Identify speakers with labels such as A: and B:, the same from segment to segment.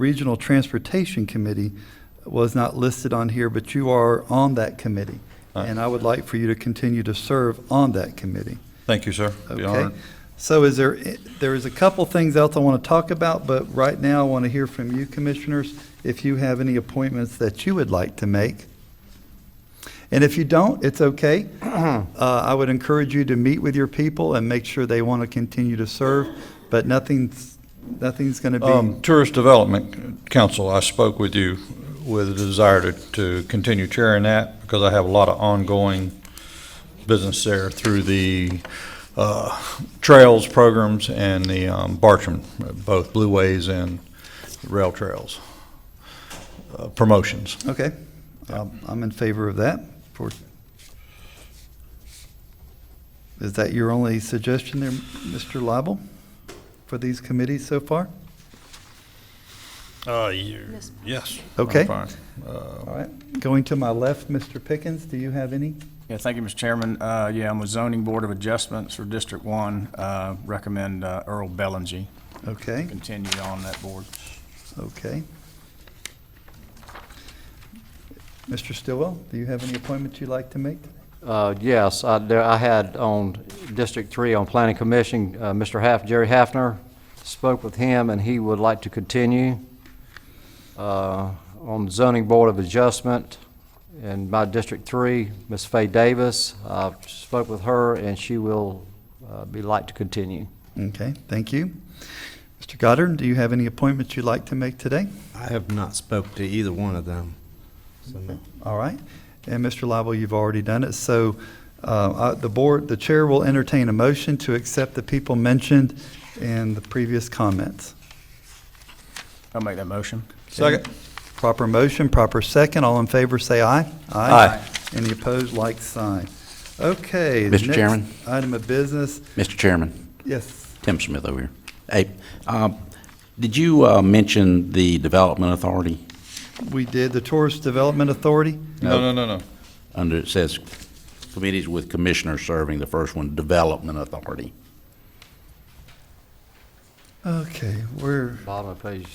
A: Regional Transportation Committee was not listed on here, but you are on that committee.
B: All right.
A: And I would like for you to continue to serve on that committee.
B: Thank you, sir. Be honored.
A: Okay? So is there, there is a couple things else I want to talk about, but right now I want to hear from you, commissioners, if you have any appointments that you would like to make. And if you don't, it's okay. Uh, I would encourage you to meet with your people and make sure they want to continue to serve, but nothing's, nothing's going to be,
B: Um, Tourist Development Council, I spoke with you with a desire to, to continue chairing that because I have a lot of ongoing business there through the, uh, trails programs and the, um, Bartram, both Blue Ways and rail trails, uh, promotions.
A: okay. Um, I'm in favor of that. For- Is that your only suggestion there, Mr. Lible, for these committees so far?
B: Uh, yes.
A: Okay.
B: I'm fine. Uh,
A: All right, going to my left, Mr. Pickens, do you have any?
C: Yeah, thank you, Mr. Chairman. Uh, Yeah, I'm with Zoning Board of Adjustments for District One. Uh, Recommend uh, Earl Bellinger
A: Okay,
C: continue on that board.
A: okay. Mr. Stillwell, do you have any appointments you'd like to make?
D: Uh, Yes, I there- I had on District 3 on Planning Commission, uh, Mr. Haf, Jerry Hafner, spoke with him, and he would like to continue. Uh, On Zoning Board of Adjustment, in my District 3, Ms. Fay Davis, I spoke with her, and she will uh, be like to continue.
A: Okay, thank you. Mr. Goddard, do you have any appointments you'd like to make today?
E: I have not spoke to either one of them. So,
A: All right, and Mr. Lible, you've already done it, so uh, I- the board, the chair will entertain a motion to accept the people mentioned in the previous comments.
C: I'll make that motion.
B: Second.
A: Proper motion, proper second. All in favor, say aye.
F: Aye.
A: Any opposed, like sign. Okay. the
F: Mr.
A: next
F: Chairman?
A: Item of business,
F: Mr. Chairman,
A: yes.
F: Tim Smith over here. Hey, um, did you uh, mention the Development Authority?
A: We did the Tourist Development Authority.
B: No, no, no, no.
F: Under, it says committees with commissioners serving, the first one, Development Authority.
A: Okay, we're,
D: Bottom of page,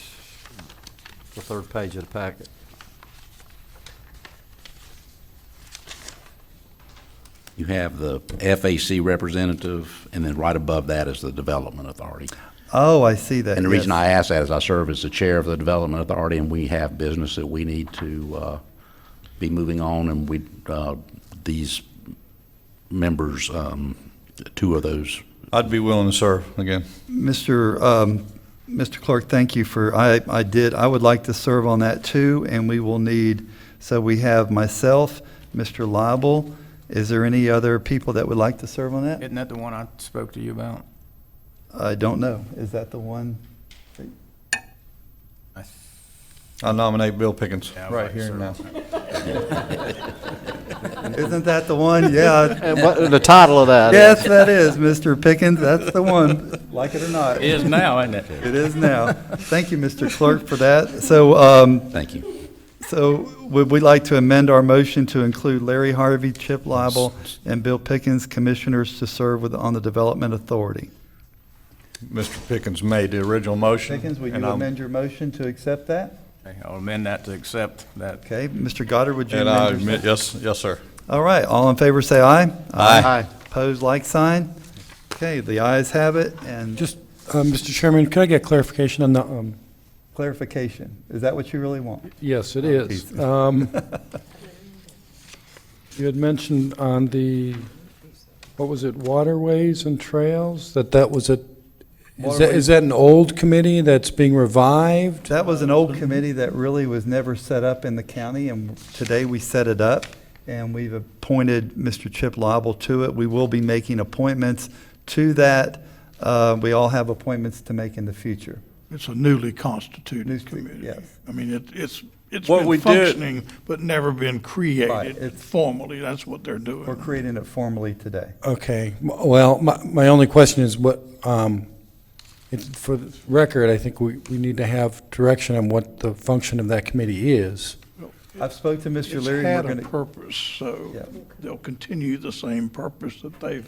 D: the third page of the packet.
F: You have the FAC representative, and then right above that is the Development Authority.
A: oh, I see that.
F: And the reason
A: yes.
F: I ask that is I serve as the chair of the Development Authority, and we have business that we need to uh, be moving on, and we, uh, these members, um, two of those
B: I'd be willing to serve again.
A: Mr. um, Mr. Clark, thank you for, I, I did, I would like to serve on that too, and we will need, so we have myself, Mr. Lible. Is there any other people that would like to serve on that?
C: Isn't that the one I spoke to you about?
A: I don't know. Is that the one?
C: I th-
B: I nominate Bill Pickens
C: Yeah, I'd
B: right
C: like to
B: here and now.
C: serve.
A: Isn't that the one? Yeah.
D: And Uh, what, the title of that is?
A: Yes, that is, Mr. Pickens. That's the one, like it or not.
C: It is now, isn't it?
A: It is now. Thank you, Mr. Clerk, for that. So, um,
F: Thank you.
A: so would we like to amend our motion to include Larry Harvey, Chip Lible, and Bill Pickens, commissioners to serve with, on the Development Authority?
B: Mr. Pickens made the original motion.
A: Pickens, will
B: and
A: you
B: I'm-
A: amend your motion to accept that?
C: Okay, I'll amend that to accept that.
A: Okay, Mr. Goddard, would you
B: And I
A: amend your?
B: admit, yes, yes, sir.
A: All right, all in favor, say aye.
B: Aye.
A: Opposed, like sign. Okay, the ayes have it, and
G: Just, uh, Mr. Chairman, can I get clarification on the, um,
A: clarification. Is that what you really want?
G: yes, it is. Oh, Um, You had mentioned on the, what was it, waterways and trails, that that was a, is that,
A: Waterways-
G: is that an old committee that's being revived?
A: That was an old committee that really was never set up in the county, and today we set it up, and we've appointed Mr. Chip Lible to it. We will be making appointments to that. Uh, We all have appointments to make in the future.
H: It's a newly
A: Newly-
H: constituted committee.
A: yes.
H: I mean, it, it's, it's
B: What we
H: been
B: did-
H: functioning, but never
A: Right,
H: been
A: it's-
H: created formally. That's what they're doing.
A: We're creating it formally today.
G: Okay, m- well, my, my only question is what, um, it's, for the record, I think we, we need to have direction on what the function of that committee is.
A: I've spoke to Mr.
H: It's
A: Leary. we're
H: had a
A: gonna-
H: purpose, so
A: Yeah.
H: they'll continue the same purpose that they've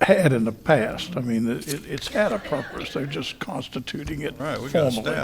G: had in the past. I mean, it, it's had a purpose. They're just constituting it
B: All right, we got a
G: formally.
B: staff